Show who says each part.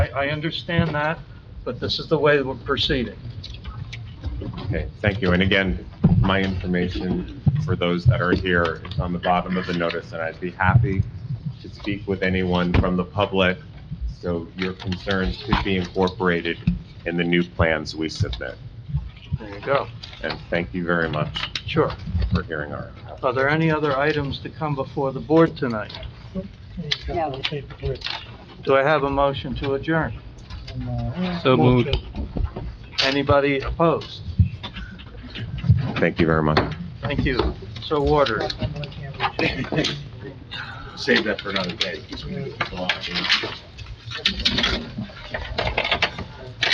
Speaker 1: I understand that, but this is the way we're proceeding.
Speaker 2: Okay, thank you. And again, my information for those that are here is on the bottom of the notice, and I'd be happy to speak with anyone from the public, so your concerns could be incorporated in the new plans we submit.
Speaker 1: There you go.
Speaker 2: And thank you very much
Speaker 1: Sure.
Speaker 2: for hearing our,
Speaker 1: Are there any other items to come before the board tonight?
Speaker 3: No.
Speaker 1: Do I have a motion to adjourn?
Speaker 4: So moved.
Speaker 1: Anybody opposed?
Speaker 2: thank you very much.
Speaker 1: Thank you. So ordered.
Speaker 5: Save that for another day. 'cause we need to go on.